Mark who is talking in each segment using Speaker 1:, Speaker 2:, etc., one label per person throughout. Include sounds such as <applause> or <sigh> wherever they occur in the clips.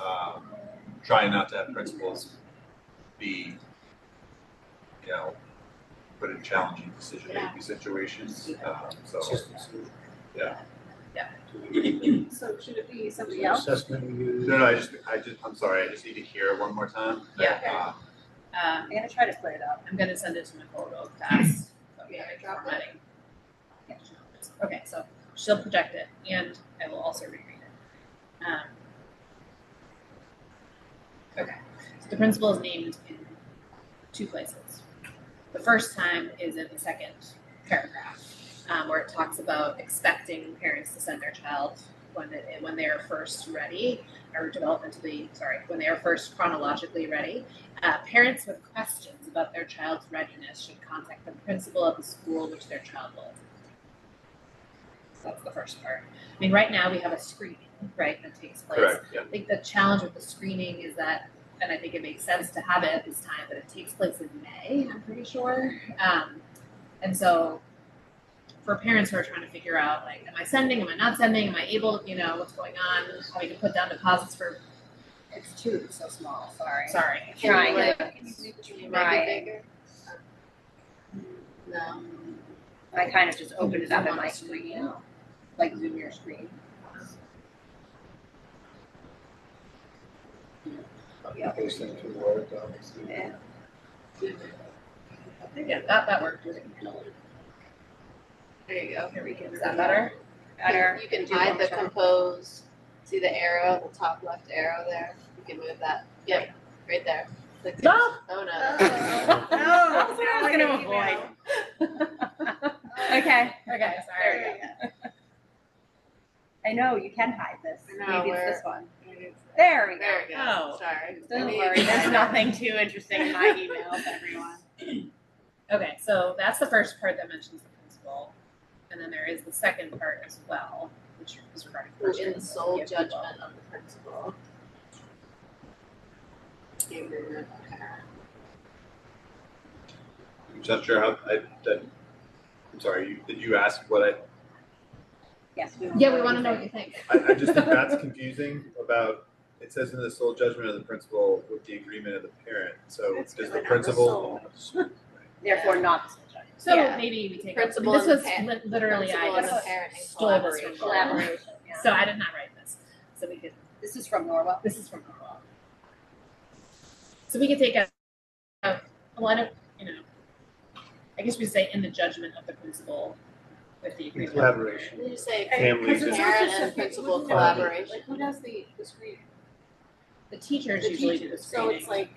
Speaker 1: um, trying not to have principals be, you know, put in challenging decision-making situations, um, so.
Speaker 2: So should it be somebody else?
Speaker 3: Assessment we use.
Speaker 1: No, no, I just, I just, I'm sorry, I just need to hear it one more time.
Speaker 2: Yeah.
Speaker 1: Um,
Speaker 2: Um,
Speaker 4: I'm gonna try to play it up.
Speaker 2: I'm gonna send it to Nicole real
Speaker 4: <clears throat>
Speaker 2: fast. but we have it
Speaker 4: Drop it.
Speaker 2: formatting. Okay, so she'll project it and I will also reread it. Um. Okay, so the principal is named in two places. The first time is in the second paragraph, um, where it talks about expecting parents to send their child when it, when they are first ready or developmentally, sorry, when they are first chronologically ready. Uh, parents with questions about their child's readiness should contact the principal of the school which their child will attend. So that's the first part. I mean, right now we have a screening, right, that takes place.
Speaker 1: Uh, Correct, yeah.
Speaker 2: I think the challenge with the screening is that, and I think it makes sense to have it at this time, but it takes place in May, I'm pretty sure. Um, and so for parents who are trying to figure out, like, am I sending, am I not sending, am I able, you know, what's going on, having to put down deposits for,
Speaker 4: It's two, so small, sorry.
Speaker 2: sorry.
Speaker 4: Trying
Speaker 2: Like,
Speaker 4: it.
Speaker 2: can you make it
Speaker 4: Make it
Speaker 2: Right.
Speaker 4: bigger?
Speaker 2: No.
Speaker 4: I kind of just opened it up
Speaker 2: Zoom
Speaker 4: in
Speaker 2: on
Speaker 4: my
Speaker 2: the screen.
Speaker 4: screen, like zoom your screen. Yeah.
Speaker 3: Paste into Word docs.
Speaker 4: Yeah.
Speaker 2: Yeah, that, that worked. There you go. Here we go. Is that better?
Speaker 4: <laughs>
Speaker 5: Better.
Speaker 4: You can do
Speaker 5: hide
Speaker 4: one
Speaker 5: the
Speaker 4: shot.
Speaker 5: compose. See the arrow, the top left arrow there. You can move that. Yep, right there. Click it.
Speaker 2: No.
Speaker 5: Oh no.
Speaker 4: Oh,
Speaker 2: No, that's what I was gonna avoid. Okay, okay, sorry.
Speaker 4: There we go. I know, you can hide this.
Speaker 5: I know,
Speaker 4: Maybe it's
Speaker 5: where-
Speaker 4: this one. There we go.
Speaker 5: There we
Speaker 2: Oh.
Speaker 5: go. Sorry.
Speaker 4: Don't
Speaker 5: Maybe-
Speaker 4: worry, there's
Speaker 5: <laughs>
Speaker 4: nothing too interesting in my <laughs> emails, everyone.
Speaker 2: Okay, so that's the first part that mentions the principal, and then there is the second part as well, which is regarding
Speaker 5: Who
Speaker 2: questions
Speaker 5: in the sole
Speaker 2: of people.
Speaker 5: judgment of the principal. Gave the room, okay.
Speaker 1: I'm just not sure how, I, that, I'm sorry, you, did you ask what I,
Speaker 4: Yes, we
Speaker 2: Yeah, we wanna know what you think.
Speaker 1: I, I just think that's confusing about, it says in the sole judgment of the principal with the agreement of the parent, so
Speaker 4: It's
Speaker 1: does
Speaker 4: really
Speaker 1: the
Speaker 4: not the
Speaker 1: principal?
Speaker 4: Therefore, not the subject.
Speaker 2: So
Speaker 5: Yeah.
Speaker 2: maybe we take, this
Speaker 5: Principal
Speaker 2: was
Speaker 5: and pa-
Speaker 2: li- literally,
Speaker 5: Principal
Speaker 2: I
Speaker 5: and
Speaker 2: just
Speaker 5: parent in
Speaker 2: stole this
Speaker 5: collaboration.
Speaker 2: from Laura.
Speaker 4: Collaboration, yeah.
Speaker 2: So I did not write this, so we could,
Speaker 4: This is from Norwell.
Speaker 2: this is from Carl. So we could take a, a a lot of, you know, I guess we say in the judgment of the principal with the agreement. of the parent.
Speaker 3: Collaboration.
Speaker 5: Did you say
Speaker 3: Families
Speaker 5: Parent
Speaker 3: and-
Speaker 5: and principal collaboration.
Speaker 2: Like, who does the, the screening? The teachers usually do the screening.
Speaker 5: like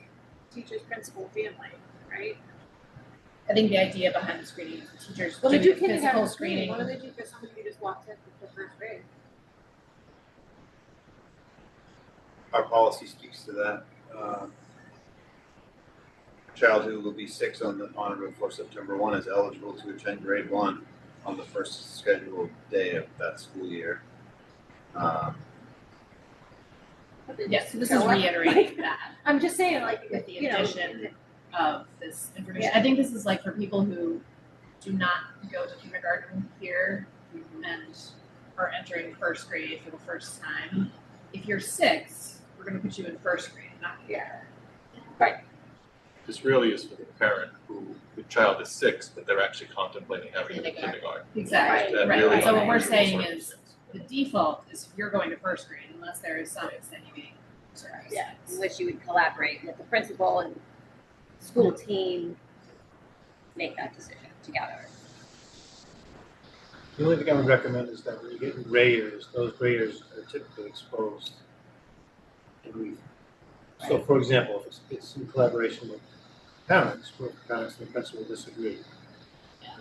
Speaker 2: teachers, principal, family, right? I think the idea behind the screening is the teachers
Speaker 6: Well,
Speaker 2: do
Speaker 6: they do
Speaker 2: the physical
Speaker 6: kindergarten
Speaker 2: screening.
Speaker 6: screening. What do they do for somebody who just walks in for the first grade?
Speaker 1: Our policy speaks to that, uh. Child who will be six on the, on or before September one is eligible to attend grade one on the first scheduled day of that school year. Um,
Speaker 2: Yes, so this is reiterating that
Speaker 6: I'm just saying, like,
Speaker 2: with the
Speaker 6: you know,
Speaker 2: addition of this information. I think this is like for people who do not go to kindergarten here and are entering first grade for the first time. If you're six, we're gonna put you in first grade, not here.
Speaker 7: This really is for the parent who, the child is six, but they're actually contemplating having them in
Speaker 2: Kindergarten.
Speaker 7: kindergarten.
Speaker 2: Exactly,
Speaker 7: That
Speaker 2: right,
Speaker 7: really
Speaker 2: so what
Speaker 7: is
Speaker 2: we're
Speaker 7: the
Speaker 2: saying
Speaker 7: sort of
Speaker 2: is,
Speaker 7: things.
Speaker 2: the default is you're going to first grade unless there is some extenuating circumstance.
Speaker 4: Yeah, in which you would collaborate with the principal and school team, make that decision together.
Speaker 3: The only thing I would recommend is that when you get graders, those graders are typically exposed. And we, so for example, if it's, it's in collaboration with parents, where parents and the principal disagree,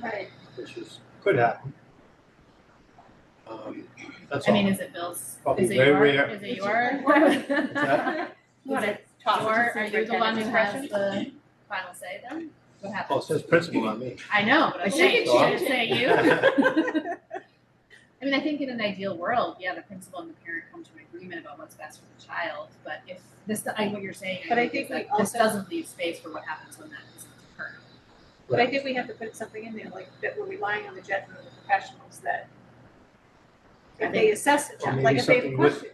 Speaker 6: right,
Speaker 3: which is, could happen. Um, that's
Speaker 2: I
Speaker 3: all.
Speaker 2: mean, is it Bill's,
Speaker 3: Probably
Speaker 2: is it
Speaker 3: very
Speaker 2: your,
Speaker 3: rare.
Speaker 2: is it
Speaker 3: It's-
Speaker 2: <laughs> your?
Speaker 4: You wanna toss it
Speaker 2: Your,
Speaker 4: to
Speaker 2: are you the one who has
Speaker 4: superintendent's
Speaker 2: the final say then? What
Speaker 3: Oh, it
Speaker 2: happens?
Speaker 3: says principal, not me.
Speaker 2: I know, but I'm
Speaker 6: She
Speaker 2: saying,
Speaker 3: can
Speaker 2: should it
Speaker 3: change
Speaker 2: say
Speaker 3: <laughs>
Speaker 2: you? I mean, I think in an ideal world, yeah, the principal and the parent come to an agreement about what's best for the child, but if this, I, what you're saying,
Speaker 6: But I
Speaker 2: I think
Speaker 6: think
Speaker 2: is
Speaker 6: we
Speaker 2: like, this
Speaker 6: also-
Speaker 2: doesn't leave space for what happens when that isn't occurred.
Speaker 6: but I think we have to put something in there, like, that we're relying on the judgment of the professionals that.
Speaker 2: I
Speaker 6: If they assess it,
Speaker 3: Or
Speaker 6: like,
Speaker 3: maybe
Speaker 6: if they have a
Speaker 3: something with,
Speaker 6: question,